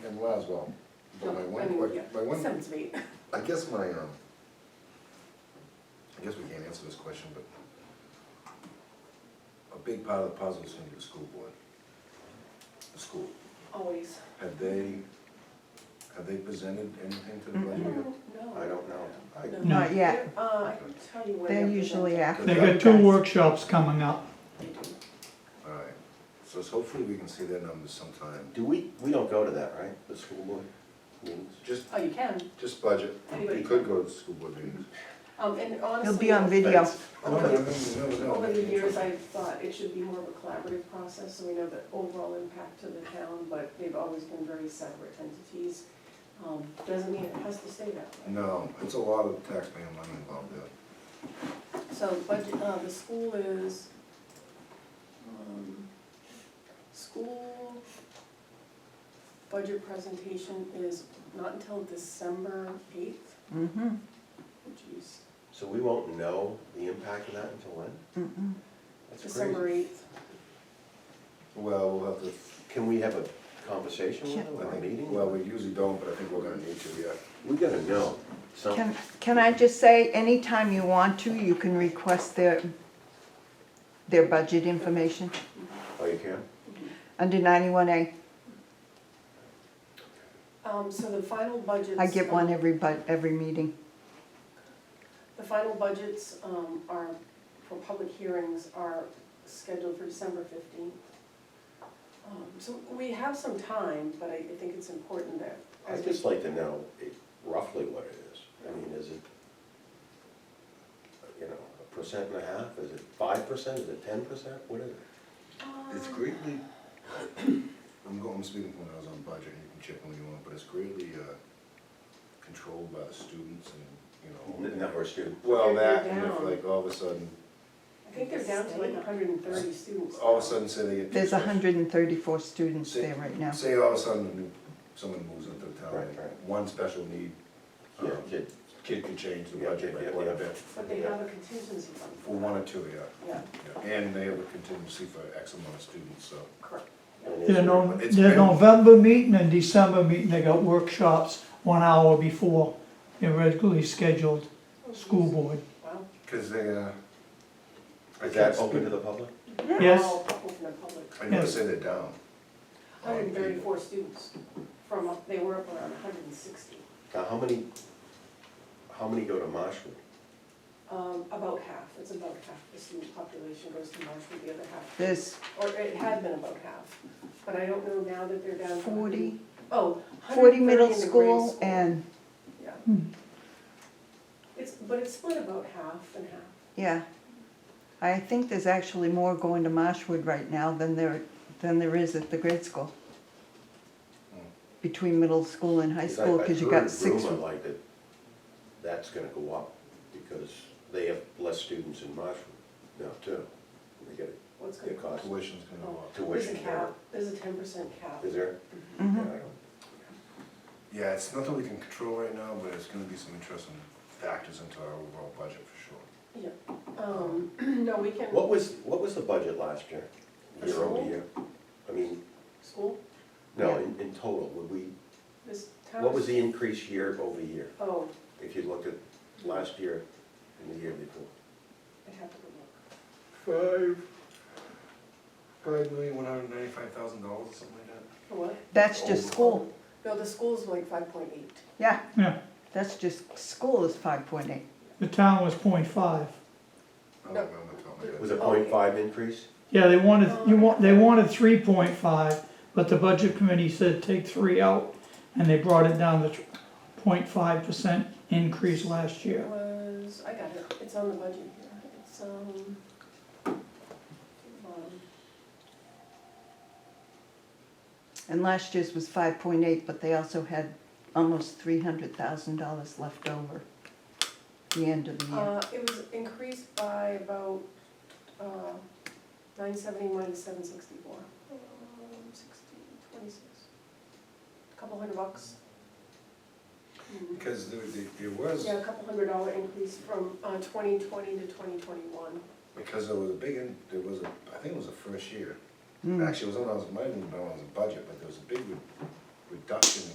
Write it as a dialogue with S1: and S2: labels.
S1: in Laswell. But my one, que- my one
S2: Sounds neat.
S1: I guess my, um, I guess we can't answer this question, but a big part of the puzzle is gonna be the school board. The school,
S2: Always.
S1: have they, have they presented anything to the
S2: I
S1: budget
S2: don't
S1: yet?
S2: know. No.
S1: I don't know. I-
S2: No.
S3: Not yet.
S2: Uh, I can tell you when.
S3: They're
S2: they're
S3: usually
S2: presenting.
S3: after.
S1: They
S4: They
S3: the
S4: got two
S3: guys.
S4: workshops coming up.
S2: They do.
S1: All right, so it's hopefully we can see their numbers sometime,
S5: Do we, we don't go to that, right, the school board meetings?
S1: just,
S2: Oh, you can.
S1: just budget,
S2: Anybody
S1: you could go to the school board meetings.
S2: Um, and honestly.
S3: He'll be on video.
S1: No, no, no, no, no.
S2: Over the years, I've thought it should be more of a collaborative process, so we know the overall impact to the town, but they've always been very separate entities. Um, Doesn't mean it has to stay that way.
S1: No, it's a lot of taxpayer money involved there.
S2: So, but, uh, the school is, um, school budget presentation is not until December eighth,
S3: Mhm,
S2: geez,
S5: So we won't know the impact of that until when?
S3: mhm.
S5: That's
S2: December
S5: crazy.
S2: eighth.
S1: Well, we'll have to
S5: Can we have a conversation with
S3: Can't-
S1: I
S5: them, or a
S1: think-
S5: meeting?
S1: Well, we usually don't, but I think we're gonna need to, yeah.
S5: We gotta know something.
S3: Can, can I just say, anytime you want to, you can request their, their budget information
S5: Oh, you can?
S3: under ninety-one A.
S2: Um, so the final budgets.
S3: I get one
S2: um,
S3: every bu, every meeting.
S2: The final budgets um, are, for public hearings, are scheduled for December 15th. Um, So we have some time, but I I think it's important that.
S5: I'd just like to know it- roughly what it is. I mean, is it, you know, a percent and a half? Is it five percent? Is it ten percent? What is it?
S1: It's greatly, I'm going, I'm speaking from when I was on budget, and you can check when you want, but it's greatly uh, controlled by the students and, you know.
S5: N- Number of students?
S1: Well,
S2: They're-
S1: that,
S2: they're
S1: and if
S2: down.
S1: like all of a sudden,
S2: I think they're down to like 130 students.
S1: all of a sudden say they get. two
S3: There's
S1: special-
S3: hundred and thirty-four students there right now.
S1: Say all of a sudden a new- someone moves into the town,
S5: Right,
S1: and
S5: right.
S1: one special need, um,
S5: Yeah, kid.
S1: kid could change the
S5: Yeah,
S1: budget
S5: yeah,
S1: by quite a
S5: yeah.
S1: bit.
S2: But they have a contingency fund.
S1: For one or two, yeah.
S2: Yeah,
S1: yeah. And they have a contingency for X amount of students, so.
S2: correct.
S5: And is
S4: Their
S5: it-
S4: No-
S1: It's
S4: their
S1: been-
S4: November meeting and December meeting, they got workshops one hour before their regularly scheduled school board.
S2: Wow.
S1: Cause they, uh. I
S5: Is that
S1: can't
S5: open
S1: speak-
S5: to the public?
S4: Yes.
S2: All open to public.
S1: I never say they're down.
S2: 134 students from, up- they were up around 160,
S5: Now, how many, how many go to Marshwood?
S2: Um, about half. It's about half the student population goes to Marshwood, the other half
S3: There's
S2: or it had been about half, but I don't know now that they're down. to-
S3: forty,
S2: Oh, 130
S3: forty
S2: in the
S3: middle
S2: grade
S3: school and,
S2: Yeah. It's, but it's split about half and half.
S3: yeah. I think there's actually more going to Marshwood right now than there, than there is at the grade school. Between middle school and high school, cause you got six.
S5: I heard rumor like that, that's gonna go up, because they have less students in Marshwood now too. They get
S2: What's
S5: their
S2: going on?
S5: cost,
S1: Tuition's gonna go up.
S2: There's a
S5: tuition,
S2: cap, there's a ten percent cap.
S5: is there?
S3: Mhm.
S5: Yeah, I don't-
S1: Yeah, it's nothing we can control right now, but it's gonna be some interesting factors into our overall budget for sure.
S2: Yeah, um, no, we can,
S5: What was, what was the budget last year,
S2: For
S5: year over
S2: school?
S5: year? I mean,
S2: school,
S5: no,
S3: Yeah.
S5: in, in total, would we,
S2: this town.
S5: what was the increase year over year?
S2: Oh,
S5: If you looked at last year and the year before?
S2: I have to go look.
S1: Five, five million, one hundred and ninety-five thousand dollars or something like that.
S2: For what? Um,
S3: That's just school,
S2: No, the school's like five point eight.
S3: yeah,
S4: Yeah,
S3: that's just, school is five point eight.
S4: the town was 0.5.
S1: I don't remember off the top of my head.
S5: Was it
S2: Oh, yeah.
S5: point five increase?
S4: Yeah, they wanted, you want, they wanted three point five, but the budget committee said take three out, and they brought it down to 0.5 percent increase last year.
S2: It was, I got it, it's on the budget here, it's, um, um,
S3: And last year's was five point eight, but they also had almost three hundred thousand dollars left over the end of the year.
S2: Uh, it was increased by about, uh, nine seventy minus seven sixty-four. Um, sixteen, twenty-six. A Couple hundred bucks. Hmm.
S1: Because there, there- there was,
S2: Yeah, a couple hundred dollar increase from, uh, twenty twenty to twenty twenty-one.
S1: because there was a big, in- there was a, I think it was the first year.
S3: Mm.
S5: Hmm.
S1: Actually, it was when I was, might have been when I was in budget, but there was a big reduction in